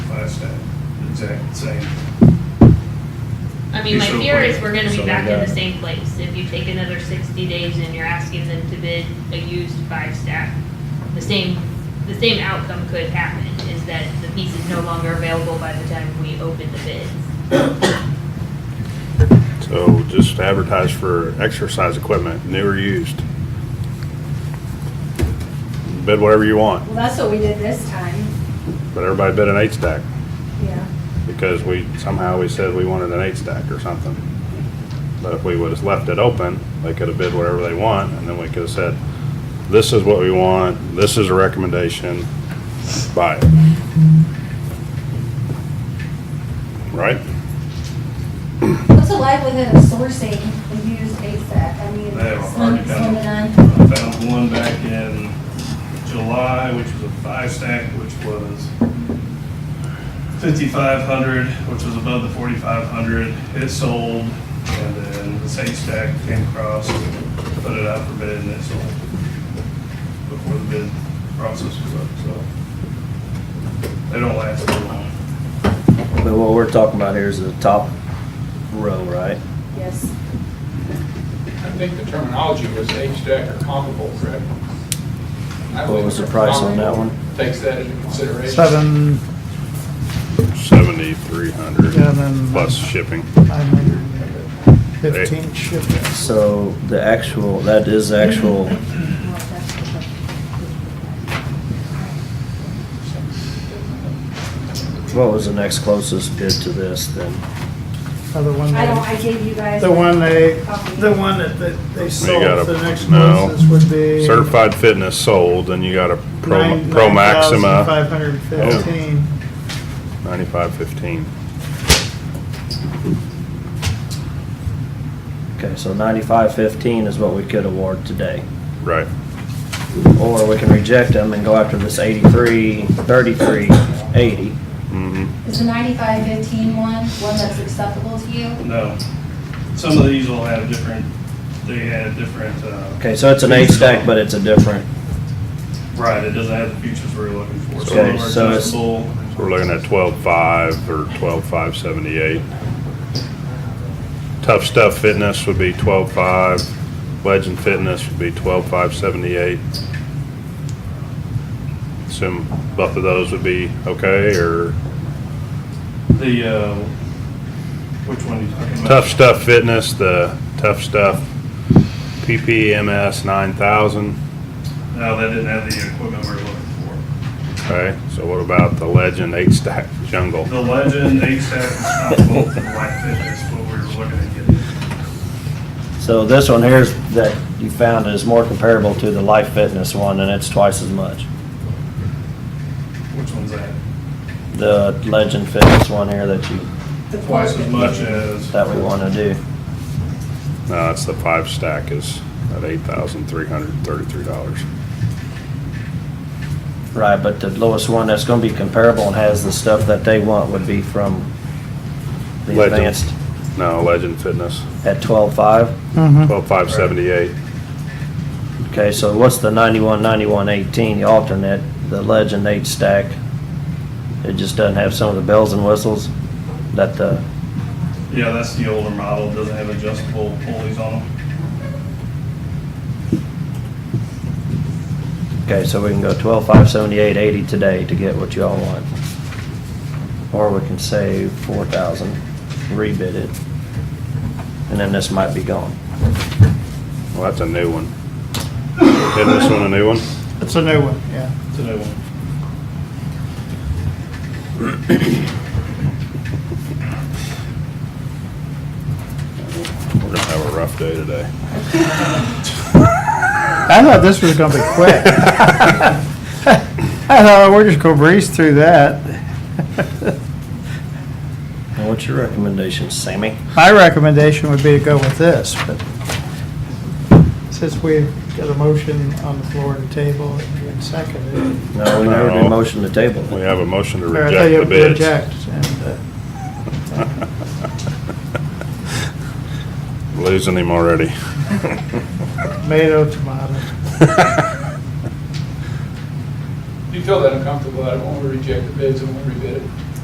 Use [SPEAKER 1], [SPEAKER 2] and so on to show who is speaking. [SPEAKER 1] that stayed, exact same.
[SPEAKER 2] I mean, my
[SPEAKER 1] You're so
[SPEAKER 2] fear is
[SPEAKER 1] quick.
[SPEAKER 2] we're gonna
[SPEAKER 3] So
[SPEAKER 2] be
[SPEAKER 3] we
[SPEAKER 2] back in
[SPEAKER 3] got-
[SPEAKER 2] the same place. If you take another sixty days and you're asking them to bid a used five stack, the same, the same outcome could happen, is that the piece is no longer available by the time we open the bids.
[SPEAKER 4] So just advertise for exercise equipment, new or used. Bid whatever you want,
[SPEAKER 5] Well, that's what we did this time,
[SPEAKER 4] but everybody bid an eight stack
[SPEAKER 5] yeah.
[SPEAKER 4] because we, somehow we said we wanted an eight stack or something. But if we would've left it open, they could've bid whatever they want and then we could've said, this is what we want, this is a recommendation, buy it. Right?
[SPEAKER 5] What's the likelihood of sourcing a used ASAP? I mean,
[SPEAKER 1] They have a
[SPEAKER 5] slim,
[SPEAKER 1] hard
[SPEAKER 5] slim to
[SPEAKER 1] time.
[SPEAKER 5] none.
[SPEAKER 1] I found one back in July, which was a five stack, which was fifty-five hundred, which was above the forty-five hundred. It sold, and then the same stack came across, put it out for bid, and it sold before the bid process was up, so. They don't last too long.
[SPEAKER 3] But what we're talking about here is the top row, right?
[SPEAKER 5] Yes.
[SPEAKER 6] I think the terminology was H-Deck or comparable, Fred. I
[SPEAKER 3] What
[SPEAKER 6] think
[SPEAKER 3] was the price on that one?
[SPEAKER 6] Takes that into consideration.
[SPEAKER 7] Seven,
[SPEAKER 4] Seventy-three hundred
[SPEAKER 7] Yeah, then- uh,
[SPEAKER 4] plus shipping.
[SPEAKER 7] nine hundred fifteen shipments.
[SPEAKER 3] So the actual, that is the actual, what was the next closest bid to this then?
[SPEAKER 7] Uh, The one
[SPEAKER 5] I don't,
[SPEAKER 7] they,
[SPEAKER 5] I gave you guys.
[SPEAKER 7] the one they, the one that they- they
[SPEAKER 4] gotta-
[SPEAKER 7] sold, the next
[SPEAKER 4] no.
[SPEAKER 7] closest would be.
[SPEAKER 4] Certified fitness sold, then you got a Pro, Pro
[SPEAKER 7] Five
[SPEAKER 4] Maxima,
[SPEAKER 7] hundred fifteen.
[SPEAKER 4] ninety-five fifteen.
[SPEAKER 3] Okay, so ninety-five fifteen is what we could award today.
[SPEAKER 4] Right,
[SPEAKER 3] Or we can reject them and go after this eighty-three, thirty-three, eighty.
[SPEAKER 4] mm-hmm.
[SPEAKER 5] Is the ninety-five fifteen one, one that's acceptable to you?
[SPEAKER 1] No. Some of these will have different, they had different, uh.
[SPEAKER 3] Okay, so it's an eight stack, but it's a different,
[SPEAKER 1] Right, it doesn't have the features we're looking for. Some
[SPEAKER 3] Okay,
[SPEAKER 1] of them are
[SPEAKER 3] so it's-
[SPEAKER 1] adjustable.
[SPEAKER 4] So we're looking at twelve-five or twelve-five seventy-eight. Tough Stuff Fitness would be twelve-five, Legend Fitness would be twelve-five seventy-eight. Assume both of those would be okay, or
[SPEAKER 1] The, uh, which one are you talking about?
[SPEAKER 4] Tough Stuff Fitness, the Tough Stuff PPMS nine thousand.
[SPEAKER 1] No, that didn't have the equipment we we're looking
[SPEAKER 4] Okay, so what about the Legend Eight Stack Jungle?
[SPEAKER 1] for. The Legend, eight stack is not both the light fitness, what we were looking at getting.
[SPEAKER 3] so this one here is that you found is more comparable to the Life Fitness one, and it's twice as much.
[SPEAKER 1] Which one's that?
[SPEAKER 3] The Legend Fitness one here that you,
[SPEAKER 1] Twice as much as.
[SPEAKER 3] that we wanna do.
[SPEAKER 4] No, it's the five stack is at eight thousand three hundred and thirty-three dollars.
[SPEAKER 3] Right, but the lowest one that's gonna be comparable and has the stuff that they want would be from the
[SPEAKER 4] Legend.
[SPEAKER 3] Advanced
[SPEAKER 4] No, Legend Fitness,
[SPEAKER 3] at twelve-five.
[SPEAKER 7] Mm-hmm.
[SPEAKER 4] twelve five seventy-eight.
[SPEAKER 3] Okay, so what's the ninety-one, ninety-one, eighteen, the alternate, the Legend eight stack? It just doesn't have some of the bells and whistles that the,
[SPEAKER 1] Yeah, that's the older model, It doesn't have adjustable pulleys on them.
[SPEAKER 3] okay, so we can go twelve, five, seventy-eight, eighty today to get what y'all want. Or we can save four thousand, rebid it, and then this might be gone.
[SPEAKER 4] Well, that's a new one. Isn't this one a new one?
[SPEAKER 7] It's a new one, yeah.
[SPEAKER 1] It's a new one.
[SPEAKER 4] We're gonna have a rough day today.
[SPEAKER 7] I thought this was gonna be quick. I thought we're just gonna breeze through that.
[SPEAKER 3] Now, what's your recommendation, Sammy?
[SPEAKER 7] My recommendation would be to go with this, but since we've got a motion on the floor and table and been seconded.
[SPEAKER 3] No, we never
[SPEAKER 4] No.
[SPEAKER 3] did motion to table.
[SPEAKER 4] We have a motion to
[SPEAKER 7] or I thought you
[SPEAKER 4] reject the bids.
[SPEAKER 7] Reject, and, uh,
[SPEAKER 4] Losing him already.
[SPEAKER 7] tomato, tomato.
[SPEAKER 6] You feel that uncomfortable, I don't want to reject the bids, I want to rebid it.